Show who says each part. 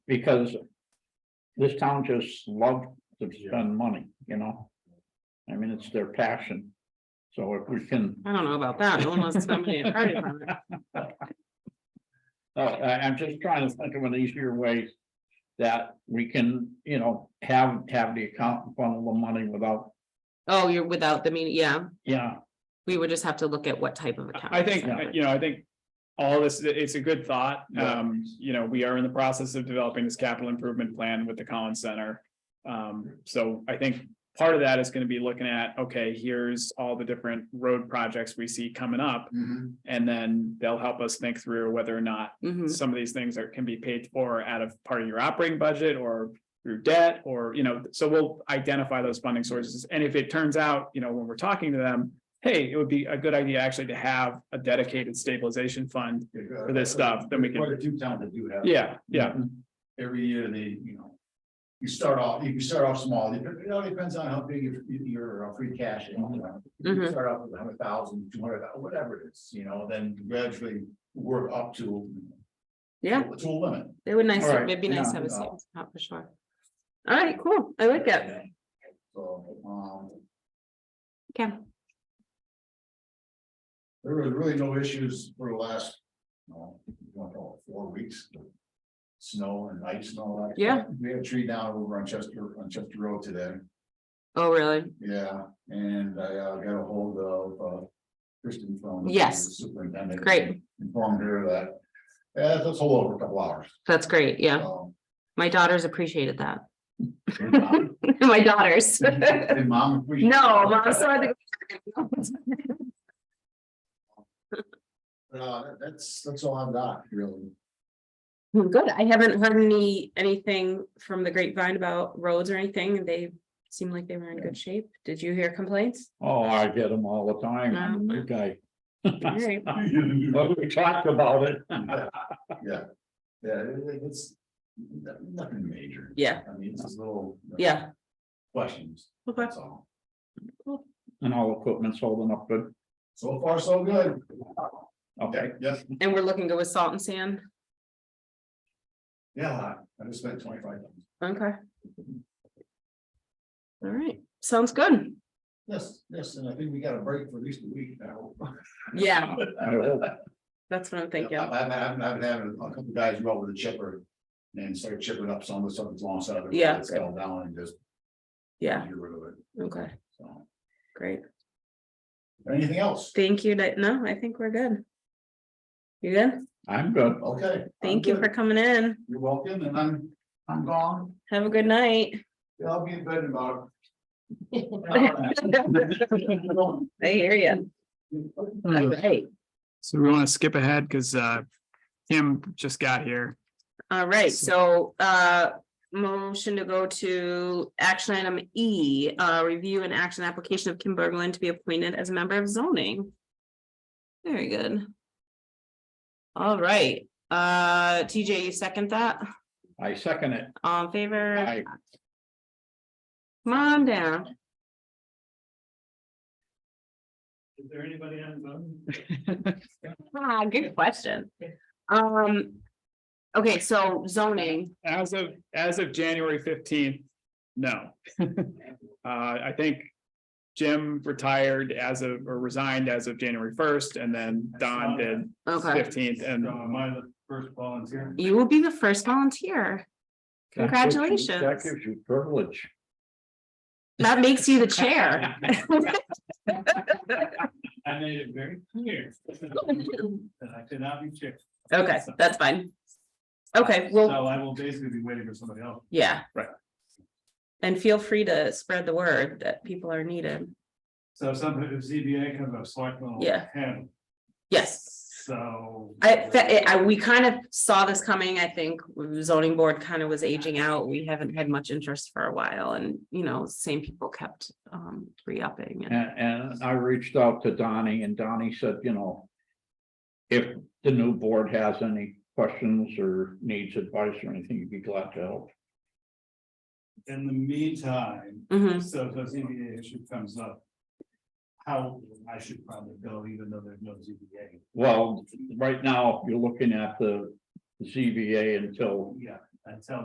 Speaker 1: because this town just loves to spend money, you know? I mean, it's their passion. So if we can, uh,
Speaker 2: I don't know about that, no one wants to spend money on fire department.
Speaker 1: oh, I, I'm just trying to think of an easier way that we can, you know, have, have the account funnel the money without,
Speaker 2: Oh, you're without the meaning, yeah,
Speaker 1: yeah,
Speaker 2: we would just have to look at what type of account.
Speaker 3: I think,
Speaker 2: it's
Speaker 3: uh,
Speaker 2: covered.
Speaker 3: you know, I think all this, it's a good thought.
Speaker 1: Yeah.
Speaker 3: Um, you know, we are in the process of developing this capital improvement plan with the Collins Center. Um, so I think part of that is gonna be looking at, okay, here's all the different road projects we see coming up. And then they'll help us think through whether or not
Speaker 2: Mhm.
Speaker 3: some of these things are, can be paid for out of part of your operating budget or through debt or, you know, so we'll identify those funding sources. And if it turns out, you know, when we're talking to them, hey, it would be a good idea actually to have a dedicated stabilization fund.
Speaker 4: For
Speaker 3: this stuff, then we can-
Speaker 4: Quite a few towns that do have.
Speaker 3: Yeah, yeah,
Speaker 4: Every year they, you know. You start off, you can start off small, it it all depends on how big your, your uh, free cash is. you know. You can
Speaker 2: Mhm.
Speaker 4: Start off with a hundred thousand, two hundred, whatever it is, you know, then gradually work up to.
Speaker 2: Yeah,
Speaker 4: To a limit.
Speaker 2: it would nice,
Speaker 1: All right,
Speaker 2: it'd be nice
Speaker 1: yeah.
Speaker 2: to have a savings account for sure. All right, cool, I like it,
Speaker 4: So, um.
Speaker 2: okay,
Speaker 4: There was really no issues for the last, you know, I don't know, four weeks. Snow and ice and all that.
Speaker 2: Yeah.
Speaker 4: We had a tree down over on Chester, on Chester Road today,
Speaker 2: oh, really?
Speaker 4: yeah, and I uh, got a hold of uh, Kristen from. the
Speaker 2: Yes.
Speaker 4: Superintendent.
Speaker 2: Great.
Speaker 4: Informed her that, yeah, that's all over a couple hours. Um,
Speaker 2: That's great, yeah,
Speaker 4: so.
Speaker 2: my daughters appreciated that,
Speaker 4: And mom-
Speaker 2: my daughters.
Speaker 4: and mom. we-
Speaker 2: No, Mom, so I think.
Speaker 4: Uh, that's, that's all I've got, really.
Speaker 2: Well, Good, I haven't heard any, anything from the grapevine about roads or anything, they seem like they were in good shape, did you hear complaints?
Speaker 1: oh, I get them all the time.
Speaker 2: Um.
Speaker 1: I'm a big guy.
Speaker 2: All right.
Speaker 1: But we talked about it.
Speaker 4: Yeah, yeah, yeah. it- it- it's no- nothing major.
Speaker 2: Yeah.
Speaker 4: I mean, it's just little. you know,
Speaker 2: Yeah.
Speaker 4: Questions,
Speaker 2: Okay.
Speaker 4: that's all.
Speaker 1: And all equipment's holding up good.
Speaker 4: So far, so good.
Speaker 1: Okay.
Speaker 4: Yes,
Speaker 2: And we're looking to go with salt and sand,
Speaker 4: yeah, I just spent twenty-five. bucks.
Speaker 2: okay. All right, sounds good,
Speaker 4: Yes, yes, and I think we got a break for at least a week now.
Speaker 2: yeah,
Speaker 1: I hope.
Speaker 2: that's what I'm thinking,
Speaker 4: I've, I've, I've I've had a couple guys go over the chipper and start chipping up some of the stuff that's long side of it.
Speaker 2: Yeah.
Speaker 4: It's fell down and just.
Speaker 2: yeah,
Speaker 4: Get rid of it,
Speaker 2: okay,
Speaker 4: so.
Speaker 2: great,
Speaker 4: Anything else?
Speaker 2: thank you, Di- no, I think we're good. You good?
Speaker 1: I'm good.
Speaker 4: Okay. I'm
Speaker 2: Thank you
Speaker 4: good.
Speaker 2: for coming in,
Speaker 4: You're welcome, and I'm, I'm gone.
Speaker 2: have a good night.
Speaker 4: Yeah, I'll be in bed tomorrow.
Speaker 2: I hear you. Right.
Speaker 3: so we want to skip ahead because uh Kim just got here.
Speaker 2: All right, so uh, motion to go to action item E, uh, review and action application of Kim Berglund to be appointed as a member of zoning. Very good. All right, uh, TJ, you second that?
Speaker 1: I second it.
Speaker 2: All in favor?
Speaker 1: Aye.
Speaker 2: Come on down.
Speaker 3: Is there anybody on Zoom?
Speaker 2: Ah, good question. Um, okay, so zoning,
Speaker 3: As of, as of January fifteenth, no. Uh, I think Jim retired as of, or resigned as of January first, and then Don did
Speaker 2: okay,
Speaker 3: fifteenth, and
Speaker 4: Uh, am I the first volunteer?
Speaker 2: you will be the first volunteer.
Speaker 1: That
Speaker 2: Congratulations.
Speaker 1: gives you privilege.
Speaker 2: That makes you the chair.
Speaker 4: I made it very clear that I could not be chipped.
Speaker 2: Okay, that's fine. Okay, well,
Speaker 4: I will basically be waiting for somebody else.
Speaker 2: yeah.
Speaker 3: Right.
Speaker 2: And feel free to spread the word that people are needed.
Speaker 4: So if something, if ZBA comes up, selectmen
Speaker 2: will Yeah.
Speaker 4: handle,
Speaker 2: Yes.
Speaker 4: so.
Speaker 2: I, fe- I, we kind of saw this coming, I think zoning board kind of was aging out. We haven't had much interest for a while and, you know, same people kept um re-upping and,
Speaker 1: And, and I reached out to Donnie and Donnie said, you know. If the new board has any questions or needs advice or anything, you'd be glad to help.
Speaker 4: In the meantime,
Speaker 2: Mhm.
Speaker 4: so if a ZBA issue comes up. How I should probably go even though there's no ZBA.
Speaker 1: Well, right now, you're looking at the ZBA until
Speaker 4: Yeah, until